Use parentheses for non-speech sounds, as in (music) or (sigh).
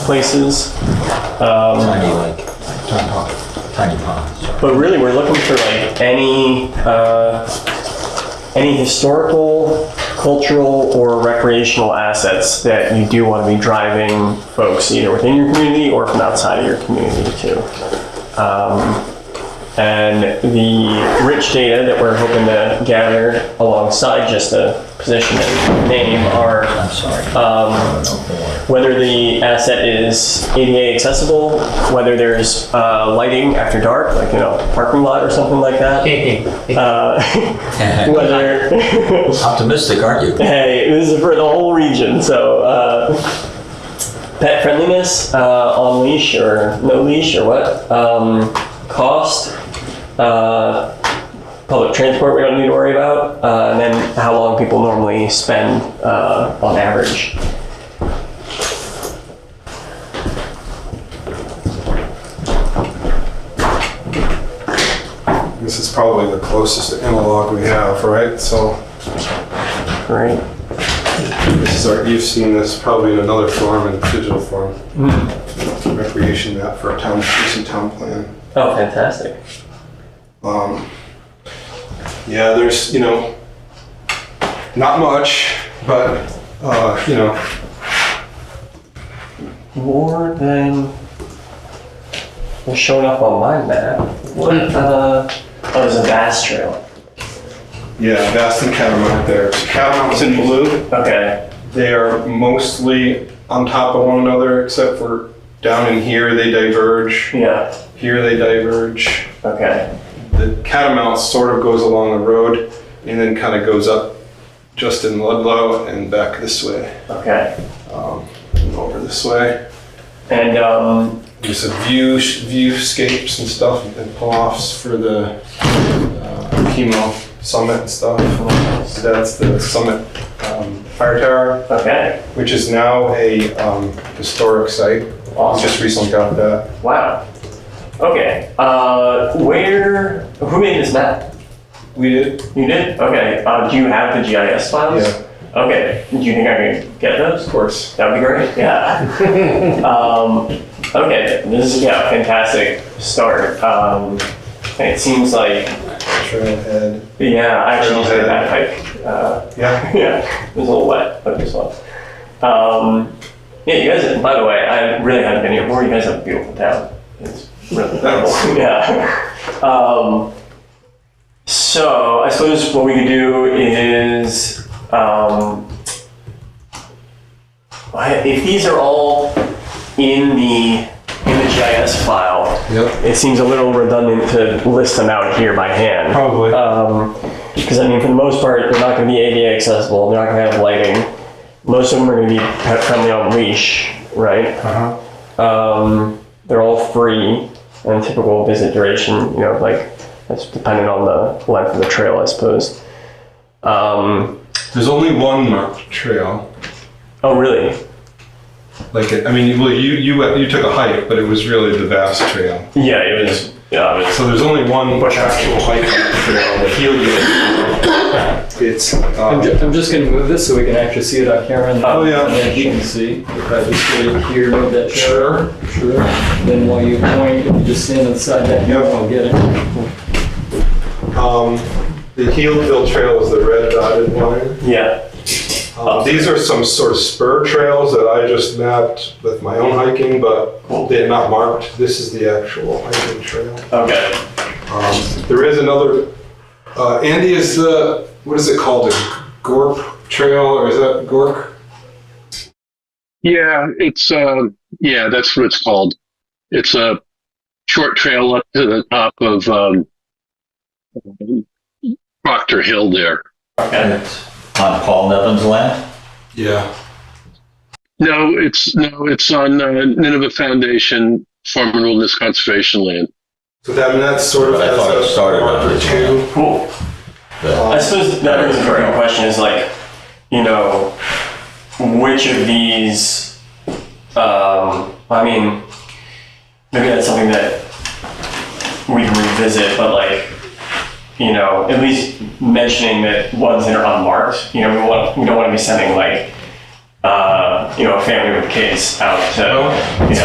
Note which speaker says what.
Speaker 1: places.
Speaker 2: Tiny like, like tiny pond, tiny pond, sorry.
Speaker 1: But really, we're looking for like any, uh, any historical, cultural, or recreational assets that you do want to be driving folks either within your community or from outside of your community too. Um, and the rich data that we're hoping to gather alongside just the position and name are
Speaker 2: I'm sorry. Um.
Speaker 1: whether the asset is ADA accessible, whether there's uh, lighting after dark, like you know, parking lot or something like that. Uh, (laughs) whether
Speaker 2: Optimistic, aren't you?
Speaker 1: hey, this is for the whole region. So uh, pet friendliness uh, on leash or no leash or what? Um, cost. Uh, Public transport we don't need to worry about, uh, and then how long people normally spend uh, on average.
Speaker 3: This is probably the closest analog we have, right? So
Speaker 1: Right.
Speaker 3: this is our, you've seen this probably in another form, in digital form. Recreation map for a town, recent town plan.
Speaker 1: Oh, fantastic.
Speaker 3: Um, yeah, there's, you know, not much, but, uh, you know,
Speaker 1: more than was showing up on my map. What? Uh, oh, there's a bass trail.
Speaker 3: yeah, Vast and Catamount there. Catamount's in blue.
Speaker 1: Okay.
Speaker 3: They are mostly on top of one another, except for down in here, they diverge.
Speaker 1: Yeah.
Speaker 3: Here, they diverge.
Speaker 1: Okay.
Speaker 3: the catamount sort of goes along the road and then kind of goes up just in Ludlow and back this way,
Speaker 1: Okay.
Speaker 3: um, and over this way.
Speaker 1: And um,
Speaker 3: Do some view viewscapes and stuff and pull offs for the uh, chemo summit and stuff. That's the summit um, fire tower,
Speaker 1: okay.
Speaker 3: which is now a um, historic site. We
Speaker 1: Awesome.
Speaker 3: just recently got that.
Speaker 1: Wow. Okay. Uh, where? Who made this map?
Speaker 3: We did.
Speaker 1: You did. Okay. Uh, do you have the GIS files?
Speaker 3: Yeah.
Speaker 1: Okay. Do you think I can get those?
Speaker 3: Of course.
Speaker 1: That'd be great. Yeah.
Speaker 3: (laughs)
Speaker 1: um, okay. This is yeah, fantastic start. Um, and it seems like
Speaker 3: Trailhead.
Speaker 1: yeah, I actually used my backpack. Uh, (laughs)
Speaker 3: Yeah.
Speaker 1: yeah, it was a little wet, but it was fun. Um, yeah, you guys. By the way, I really haven't been here before. You guys have a beautiful town. It's really
Speaker 3: Thanks.
Speaker 1: beautiful. (laughs) yeah. Um, so I suppose what we could do is. Um, I- if these are all in the in the GIS file,
Speaker 3: Yep.
Speaker 1: it seems a little redundant to list them out here by hand.
Speaker 3: Probably.
Speaker 1: Because Um, I mean, for the most part, they're not going to be ADA accessible. They're not going to have lighting. Most of them are going to be pet friendly on leash, right?
Speaker 3: uh-huh.
Speaker 1: Um, they're all free and typical visit duration. You know, like that's dependent on the length of the trail, I suppose. Um,
Speaker 3: There's only one marked trail.
Speaker 1: oh, really?
Speaker 3: Like, I mean, well, you you went- you took a hike, but it was really the vast trail.
Speaker 1: Yeah, it was. Yeah, it was.
Speaker 3: So there's only one actual hike on the trail, the Helio. It's
Speaker 4: I'm,
Speaker 3: uh,
Speaker 4: ju- I'm just going to move this so we can actually see it on camera. And
Speaker 3: Oh, yeah.
Speaker 4: And then you can see. If I just really here, move that chair. Sure. Then while you point, if you just stand inside
Speaker 3: Yep.
Speaker 4: that hill, I'll get it.
Speaker 3: um, the Healdale Trail is the red dotted line.
Speaker 1: Yeah.
Speaker 3: Um, these are some sort of spur trails that I just mapped with my own hiking, but they're not marked. This is the actual hiking trail.
Speaker 1: Okay.
Speaker 3: Um, there is another. Uh, Andy is the what is it called? A Gorp Trail or is that Gork?
Speaker 5: Yeah, it's uh, yeah, that's what it's called. It's a short trail up to the top of um, Proctor Hill there.
Speaker 1: Okay.
Speaker 2: And it's on Paul Nevin's land?
Speaker 3: Yeah.
Speaker 5: No, it's no, it's on uh, Nineveh Foundation Farm and Wilderness Conservation Land.
Speaker 3: So that, I mean, that's sort of
Speaker 2: I
Speaker 3: as
Speaker 2: thought it
Speaker 3: a
Speaker 2: started on
Speaker 3: marker
Speaker 2: this
Speaker 3: too.
Speaker 1: Cool.
Speaker 2: The-
Speaker 1: I suppose that is a very good question. Is like, you know, which of these? Um, I mean, maybe that's something that we can revisit. But like, you know, at least mentioning that ones that are unmarked. You know, we want we don't want to be sending like uh, you know, a family with kids out to, you know,